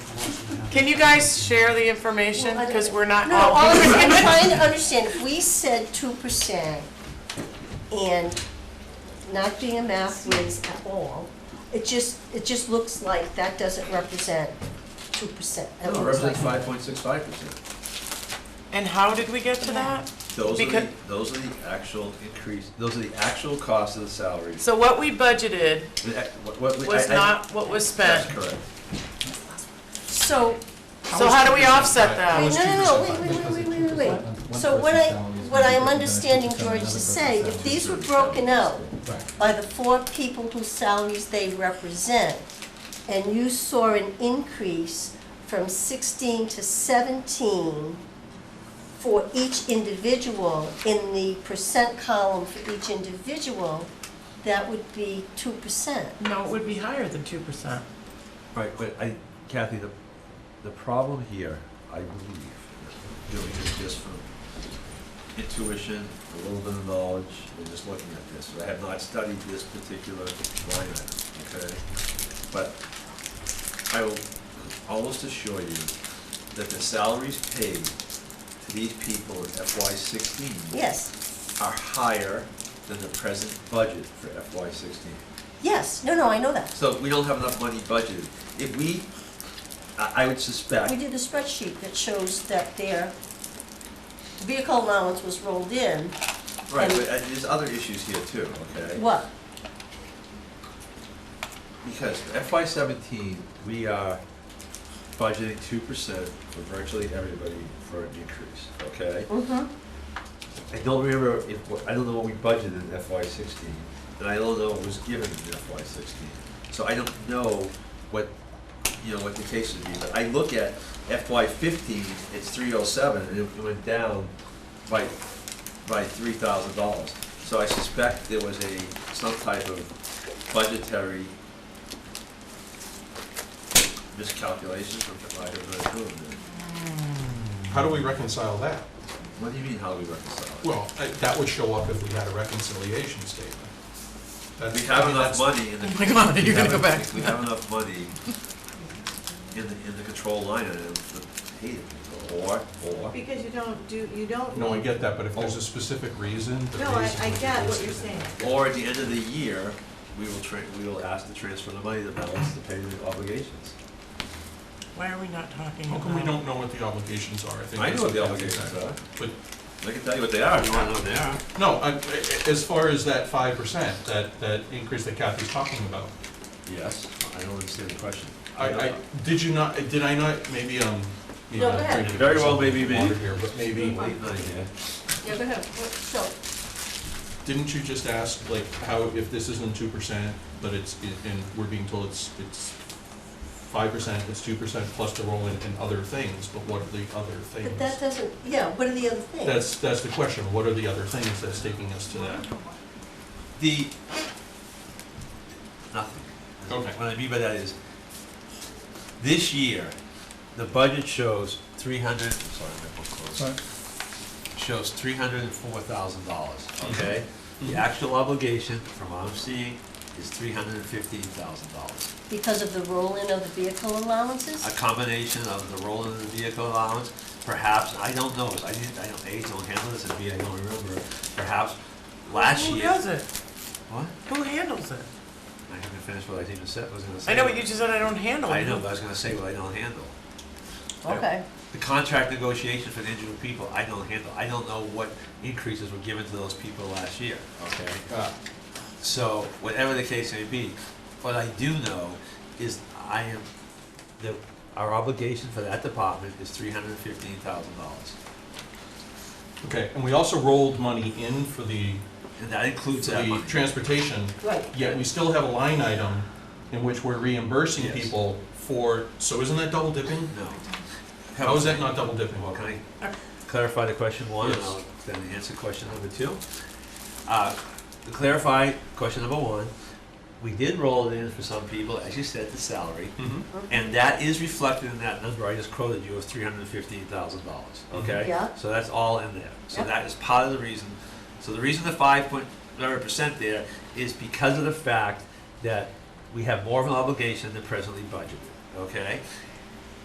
Can you guys share the information? Because we're not. No, all I'm I'm trying to understand, if we said two percent and not being a math whiz at all, it just, it just looks like that doesn't represent two percent. No, it represents five point six five percent. And how did we get to that? Those are the, Because- those are the actual increase, those are the actual costs of the salaries. So what we budgeted The ac- what- what we- was I- I- not what was That's spent. correct. So, So how do we offset wait, that? no, no, no, wait, wait, wait, wait, wait, wait. So what I, what I am understanding George to say, if these were broken out by the four people whose salaries they represent, and you saw an increase from sixteen to seventeen for each individual in the percent column for each individual, that would be two percent. No, it would be higher than two percent. Right, but I, Kathy, the, the problem here, I believe, doing this just from intuition, a little bit of knowledge, and just looking at this, I have not studied this particular line item, okay? But I will almost assure you that the salaries paid to these people in FY sixteen Yes, are higher than the present budget for FY sixteen. yes, no, no, I know that. So we don't have enough money budgeted. If we, I, I would suspect, We did a spreadsheet that shows that their vehicle allowance was rolled in. right, but uh, there's other issues here too, okay? What? Because FY seventeen, we are budgeting two percent for virtually everybody for an increase, okay? Mm-hmm. I don't remember if, I don't know what we budgeted in FY sixteen, and I don't know what was given in FY sixteen. So I don't know what, you know, what the case would be, but I look at FY fifteen, it's three oh seven, and it went down by, by three thousand dollars. So I suspect there was a, some type of budgetary miscalculation from the might have been approved. How do we reconcile that? What do you mean, how do we reconcile it? Well, I- that would show up if we had a reconciliation statement. That's- We I have mean, enough that's- money in the. Oh my God, we you're gonna have go en- back to We have enough money in the, in the control line item to pay the people, or, or. Because you don't do, you don't. No, I get that, but if there's Oh. a specific reason. the No, I, reason I would be get what listed you're in saying. there. Or at the end of the year, we will tra, we will ask to transfer the money to balance the payment obligations. Why are we not talking How about? come we don't know what the obligations are? think I that's know what the that is. obligations are, But, I can tell you what they are, you wanna know what they are. no, I- I- as far as that five percent, that, that increase that Kathy's talking about, Yes, I don't understand the question. I, I, did you not, did I not, maybe, um. maybe No, I'm go ahead. drinking Very well, myself maybe me. water here, But maybe, Late night, yeah. Yeah, go ahead. So, didn't you just ask, like, how, if this isn't two percent, but it's, and we're being told it's, it's five percent, it's two percent plus the roll in and other things, but what are the other but that things? doesn't, yeah, what are the other things? That's, that's the question, what are the other things that's taking us to that? The, nothing. Okay. What I mean by that is, this year, the budget shows three hundred, sorry, my book's closed. Shows three hundred and four thousand dollars, Mm-hmm. okay? The actual obligation, from what I'm seeing, is three hundred and fifteen thousand dollars. Because of the roll-in of the vehicle allowances? A combination of the roll of the vehicle allowance, perhaps, I don't know, I didn't, I don't, A, don't handle this, and B, I don't remember, perhaps last Who year. does it? What? Who handles it? I haven't finished what I even said, was gonna say. I know, but you just said I don't handle it. I know, but I was gonna say what I don't handle. Okay. The contract negotiation for the individual people, I don't handle. I don't know what increases were given to those people last year, okay? Ah, So, whatever the case may be, what I do know is I am, the, our obligation for that department is three hundred and fifteen thousand dollars. Okay, and we also rolled money in for the, And that includes for that the money. transportation, Right. yet we still have a line item in which we're reimbursing Yes. people for, so isn't that double dipping? No. How is that not double dipping? Well, can I clarify the question one, and Yes. I'll then answer question number two? Uh, To clarify question number one, we did roll it in for some people, as you said, the salary, Mhm. and that is reflected in that number I just quoted you of three hundred and fifteen thousand dollars, okay? Mm-hmm. Yeah. So that's all in there, so Yep. that is part of the reason, so the reason the five point, whatever percent there is because of the fact that we have more of an obligation than presently budgeted, okay?